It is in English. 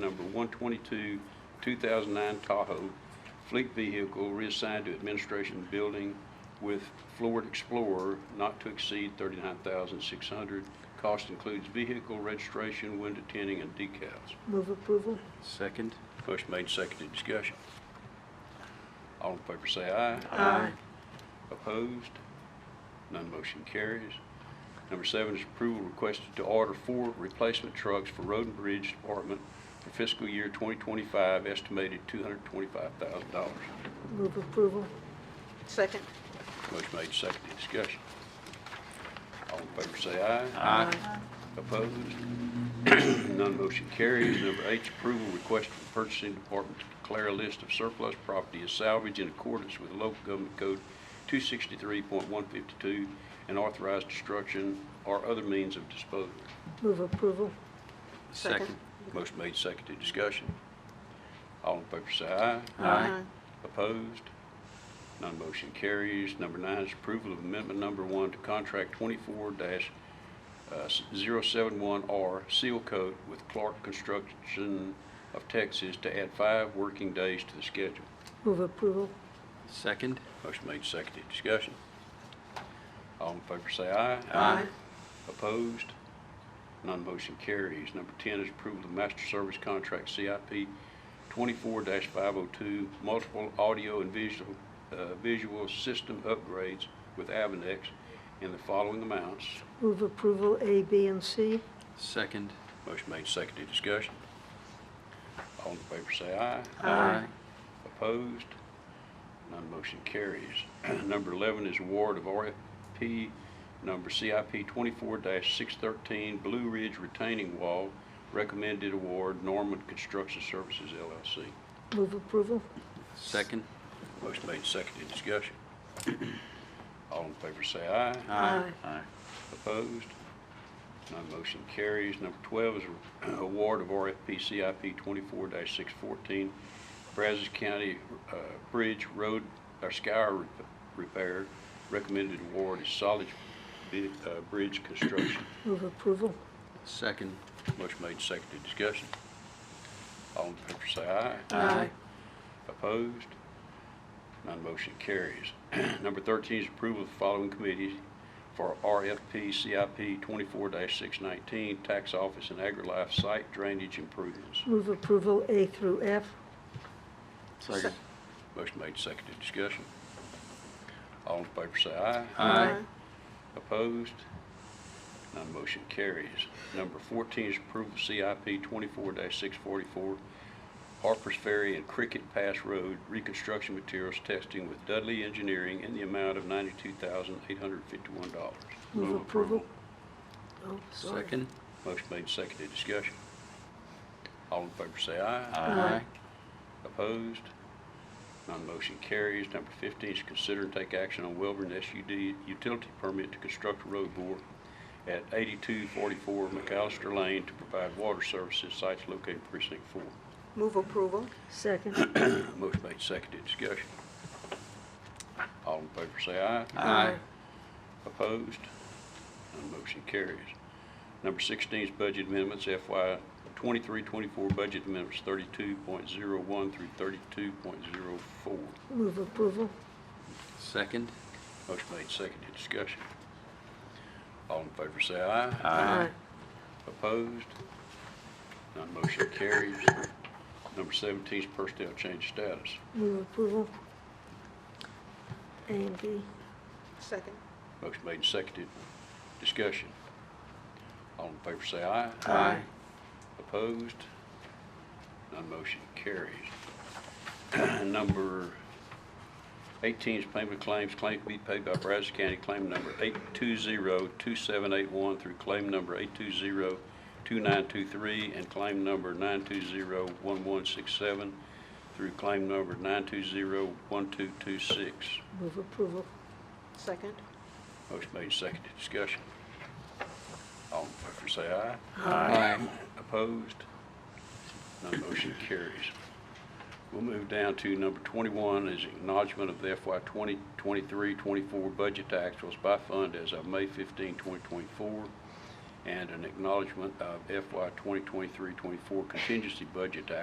number 122, 2009 Tahoe, fleet vehicle reassigned to administration building with Ford Explorer not to exceed 39600 Cost includes vehicle registration, window tinting, and decals. Move approval? Second? Motion made, seconded, discussion. All in favor say aye. Aye. Opposed? None motion carries. Number seven is approval requested to order four replacement trucks for Road and Bridge Department for fiscal year 2025, estimated $225,000. Move approval? Second. Motion made, seconded, discussion. All in favor say aye. Aye. Opposed? None motion carries. Number eight, approval request from purchasing department to declare a list of surplus property as salvage in accordance with local government code 263.152 and authorized destruction or other means of disposal. Move approval? Second? Motion made, seconded, discussion. All in favor say aye. Aye. Opposed? None motion carries. Number nine is approval of amendment number one to contract uh, 24-071R Seal Coat with Clark Construction of Texas to add five working days to the schedule. Move approval? Second? Motion made, seconded, discussion. All in favor say aye. Aye. Opposed? None motion carries. Number 10 is approval of master service contract CIP 24-502, multiple audio and visual, uh, visual system upgrades with Avanex in the following amounts. Move approval A, B, and C? Second? Motion made, seconded, discussion. All in favor say aye. Aye. Opposed? None motion carries. Number 11 is award of RFP number CIP 24-613 Blue Ridge Retaining Wall, recommended award Norman Construction Services LLC. Move approval? Second? Motion made, seconded, discussion. All in favor say aye. Aye. Aye. Opposed? None motion carries. Number 12 is award of RFP CIP 24-614, Brazos County uh, Bridge Road, or Scour rep- Repair. Recommended award is Solid Bi- uh, Bridge Construction. Move approval? Second? Motion made, seconded, discussion. All in favor say aye. Aye. Opposed? None motion carries. Number 13 is approval of the following committees for RFP CIP 24-619, Tax Office and AgriLife Site Drainage Improvements. Move approval A through F? Second? Motion made, seconded, discussion. All in favor say aye. Aye. Opposed? None motion carries. Number 14 is approval of CIP 24-644, Harper's Ferry and Cricket Pass Road reconstruction materials testing with Dudley Engineering in the amount of $92,851. Move approval? Oh, sorry. Second? Motion made, seconded, discussion. All in favor say aye. Aye. Opposed? None motion carries. Number 15 is consider and take action on Welborn SUD utility permit to construct a road bore at 8244 McAllister Lane to provide water services sites located precinct 4. Move approval? Second. Motion made, seconded, discussion. All in favor say aye. Aye. Opposed? None motion carries. Number 16 is budget amendments, FY 23-24 budget amendments 32.01 through 32.04. Move approval? Second? Motion made, seconded, discussion. All in favor say aye. Aye. Opposed? None motion carries. Number 17 is personnel change status. Move approval? A and B? Second. Motion made, seconded, discussion. All in favor say aye. Aye. Opposed? None motion carries. Number 18 is payment of claims, claim to be paid by Brazos County, claim number 8202781 through claim number 8202923, and claim number 9201167 through claim number 9201226. Move approval? Second. Motion made, seconded, discussion. All in favor, say aye. Aye. Opposed? None motion carries. We'll move down to number 21 is acknowledgement of the FY 2023-24 budget actuals by fund as of May 15, 2024, and an acknowledgement of FY 2023-24 contingency budget to